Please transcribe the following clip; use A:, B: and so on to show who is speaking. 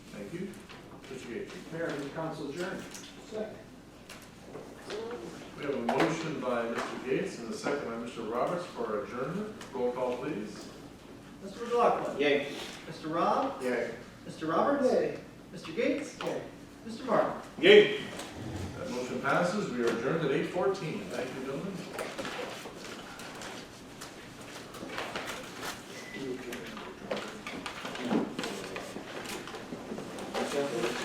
A: Mayor, move council adjourned.
B: Second.
C: We have a motion by Mr. Gates and a second by Mr. Roberts for adjournment. Roll call, please.
D: Mr. McLaughlin.
B: Yay.
D: Mr. Rob.
C: Yay.
D: Mr. Roberts. Mr. Gates. Mr. Martin.
C: Yay. That motion passes. We are adjourned at eight fourteen. Thank you, gentlemen.